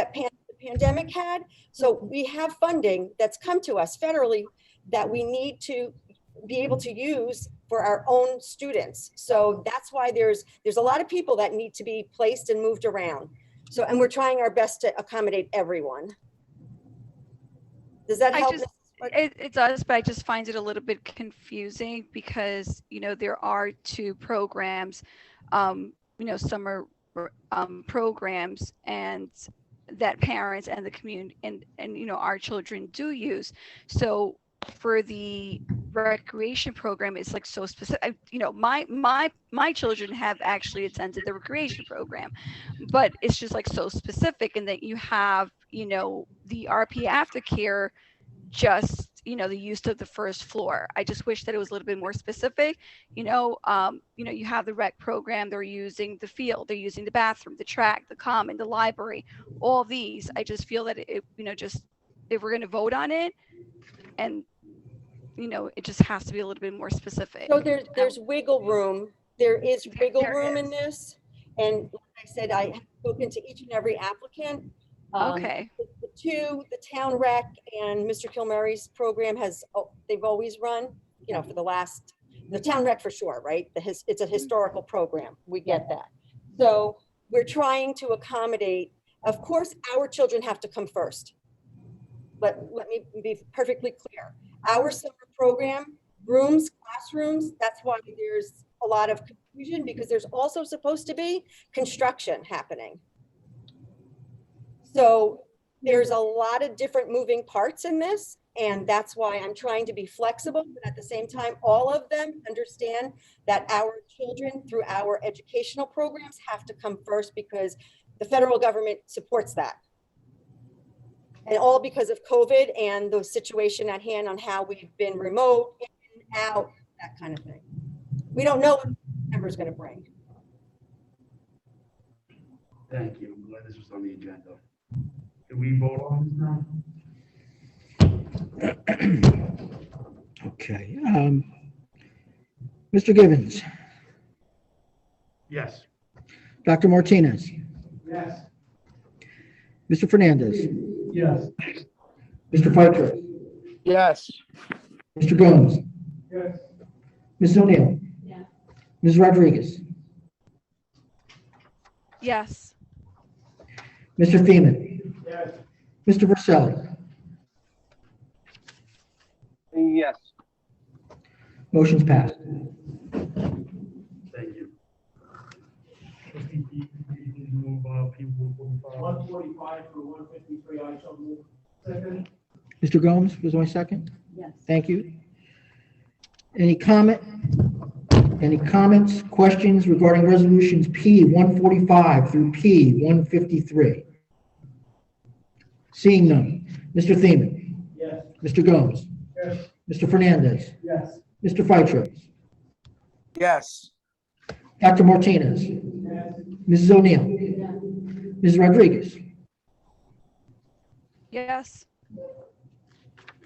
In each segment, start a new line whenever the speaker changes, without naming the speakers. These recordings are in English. that pan- the pandemic had. So
Mm-hmm.
we have funding that's come to us federally that we need to be able to use for our own students. So that's why there's, there's a lot of people that need to be placed and moved around. So, and we're trying our best to accommodate everyone. Does that
I
help?
just-
But-
It, it does, but I just find it a little bit confusing because, you know, there are two programs, um, you know, summer um, programs and that parents and the community and, and, you know, our children do use. So for the recreation program, it's like so specific, I- you know, my, my, my children have actually attended the recreation program, but it's just like so specific in that you have, you know, the RP aftercare just you know the use of the first floor i just wish that it was a little bit more specific you know um, you know you have the rec program they're using the field they're using the bathroom the track the common the library all these i just feel that it you know just if we're going to vote on it and you know it just has to be a little bit more specific
So there's, there's wiggle room. There is wiggle
There
room in
is.
this. And like I said, I have spoken to each and every applicant. Um,
okay
the two, the town rec and Mr. Kilmary's program has, oh, they've always run, you know, for the last, the town rec for sure, right? The his, it's a historical program. We get that. So we're trying to accommodate, of course, our children have to come first. But let me be perfectly clear. Our summer program, rooms, classrooms, that's why there's a lot of confusion because there's also supposed to be construction happening. So there's a lot of different moving parts in this, and that's why I'm trying to be flexible, but at the same time, all of them understand that our children through our educational programs have to come first because the federal government supports that. And all because of COVID and the situation at hand on how we've been remote, in, out, that kind of thing. We don't know what September's gonna bring.
Thank you. I'm glad this was on the agenda. Can we vote on this now?
Okay. um, Mr. Givens,
Yes.
Dr. Martinez,
Yes.
Mr. Fernandez,
Yes.
Mr. Piper,
Yes.
Mr. Gomes,
Yes.
Ms. O'Neill, Ms. Rodriguez,
yes
Mr. Feeman,
Yes.
Mr. Verselli.
Yes.
Motion's passed.
Thank you. Move, uh, P one forty-five. One forty-five through one fifty-three, I shall move. Second.
Mr. Gomes was my second? Yes. Thank you. Any comment? Any comments, questions regarding resolutions P 145 through P 153? Seeing none. Mr. Thiemann.
Yes.
Mr. Gomes.
Yes.
Mr. Fernandez.
Yes.
Mr. Fittro.
Yes.
Dr. Martinez. Mrs. O'Neill. Ms. Rodriguez.
yes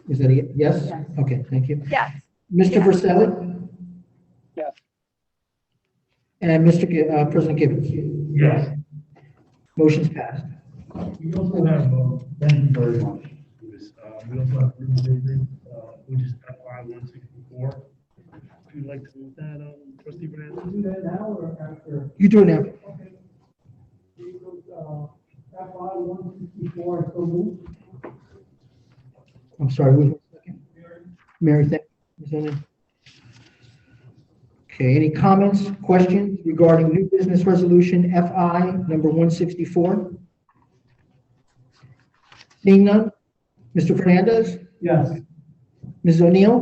Is that a ye- yes? Okay, thank you.
yes
Mr. Verselli?
Yes.
And Mr. Gi- uh, President Gibbons?
Yes.
Motion's passed.
We also have, uh, thank you very much. Louis. Uh, we also have group business, uh, which is FY one sixty-four. Would you like to move that, um, trustee Fernandez?
Do that now or after?
You do it now.
Okay. We go, uh, FY one sixty-four, so move.
I'm sorry, wait a second. Mary, thank Ms. O'Neill. Okay, any comments, questions regarding new business resolution FI number 164? Seeing none? Mr. Fernandez?
Yes.
Ms. O'Neill?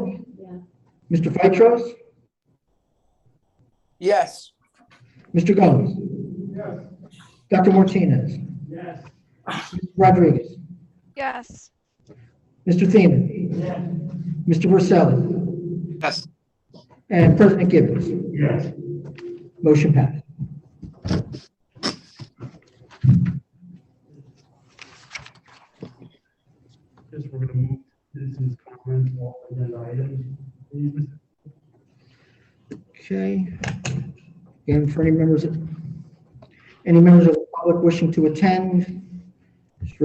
Mr. Phytros?
Yes.
Mr. Gomes?
Yes.
Dr. Martinez?
Yes.
Rodriguez?
yes
Mr. Thiemann? Mr. Verselli?
Yes.
And President Gibbons?
Yes.
Motion passed.
Yes, we're gonna move citizens' comments, all agenda items. Please, Mr.
Okay. And for any members, any members of the public wishing to attend,